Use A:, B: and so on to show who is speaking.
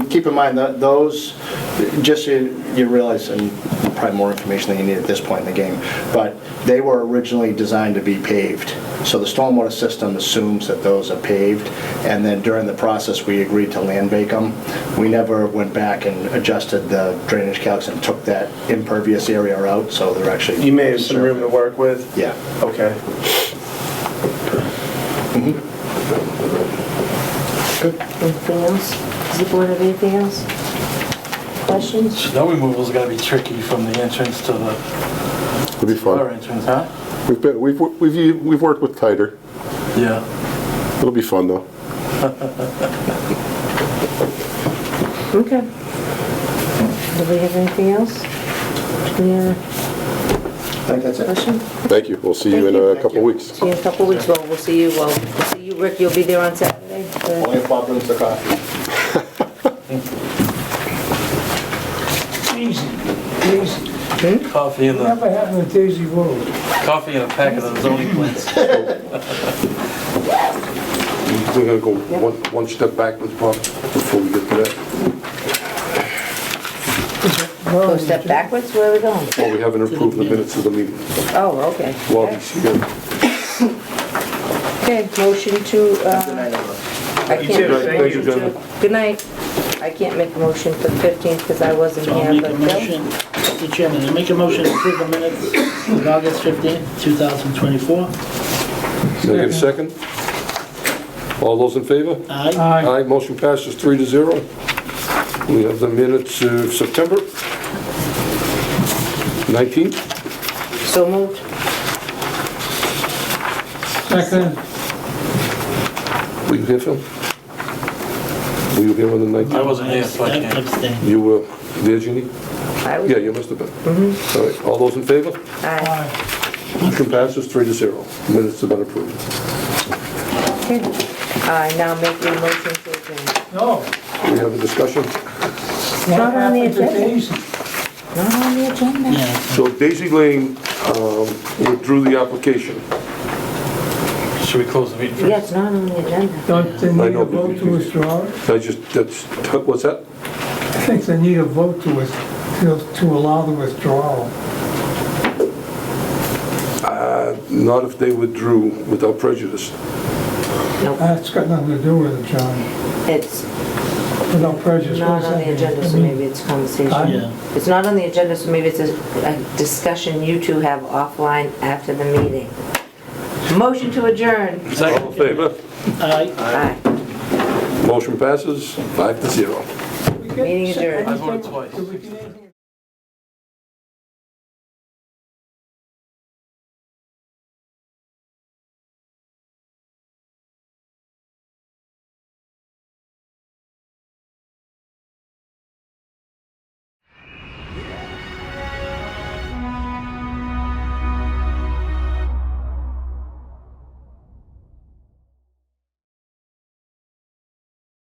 A: keep in mind that those, just so you you realize, and probably more information than you need at this point in the game, but they were originally designed to be paved. So the stormwater system assumes that those are paved, and then during the process, we agreed to land bake them. We never went back and adjusted the drainage calcs and took that impervious area out, so they're actually.
B: You may have some room to work with?
A: Yeah.
B: Okay.
C: Anything else? Does the board have anything else? Questions?
D: Snow removal's gonna be tricky from the entrance to the
E: It'll be
D: fire
E: fun.
D: entrance, huh?
E: We've been, we've, we've, we've worked with tighter.
D: Yeah.
E: It'll be fun though.
C: Okay. Nobody have anything else? Any other
A: I think that's it.
C: question?
E: Thank you. We'll see you in
C: Thank you.
E: a couple weeks.
C: See you in a couple weeks, well, we'll see you, well, we'll see you, Rick, you'll be there on Saturday?
A: Only if Bob brings the coffee.
F: Daisy, Daisy,
D: Coffee in the,
F: whatever happened to Daisy Road?
D: coffee in a packet of zoning plans.
E: We're gonna go one, one step backwards, Bob, before we get to that.
C: Go step backwards, where are we going?
E: Well, we haven't approved the minutes of the meeting.
C: Oh, okay.
E: Lobby's here.
C: Okay, motion to, uh, I
B: You
C: can't.
B: too, thank
E: you. Thank you.
C: Good night. I can't make a motion for the 15th because I wasn't
G: So I'll
C: here,
G: make a
C: but Bill?
G: motion, Mr. Chairman, I make a motion to approve the minutes of August 15th, 2024.
E: Can I get a second? All those in favor?
G: Aye.
D: Uh,
F: Aye.
E: Aye, motion passes three to zero. We have the minutes of September 19th.
C: So moved.
F: Second,
E: Were you here, Phil? Were you here on the
D: I
E: 19th?
D: wasn't here, so I can't.
G: Abstain.
E: You were there, Jeannie?
C: I was,
E: Yeah, you must have been. All right, all those in favor?
C: aye.
F: aye.
E: Motion passes three to zero. Minutes have been approved.
C: Okay. I now make a motion to adjourn.
F: No,
E: We have a discussion.
F: what
C: Not on the
F: happened to
C: agenda.
F: Daisy?
C: Not on the agenda.
G: Yeah.
E: So Daisy Lane um, withdrew the application.
D: Should we close the meeting first?
C: Yeah, it's not on the agenda.
F: Don't they
E: I
F: need
E: know,
F: a
E: but you-
F: vote to withdraw? it?
E: I just, that's, what's that?
F: I think they need a vote to, with- to- to allow the withdrawal.
E: Not if they withdrew without prejudice.
F: That's got nothing to do with it, John.
C: It's
F: Without prejudice. what
C: not
F: does
C: on
F: that
C: the
F: mean?
C: agenda,
F: I
C: so
F: mean,
C: maybe it's conversation.
G: Yeah.
C: It's not on the agenda, so maybe it's a a discussion you two have offline after the meeting. Motion to adjourn.
E: All in favor?
G: Aye.
C: Aye.
E: Motion passes five to zero.
F: we get-
C: Meeting adjourned.
D: I voted twice.
F: Did we get anything?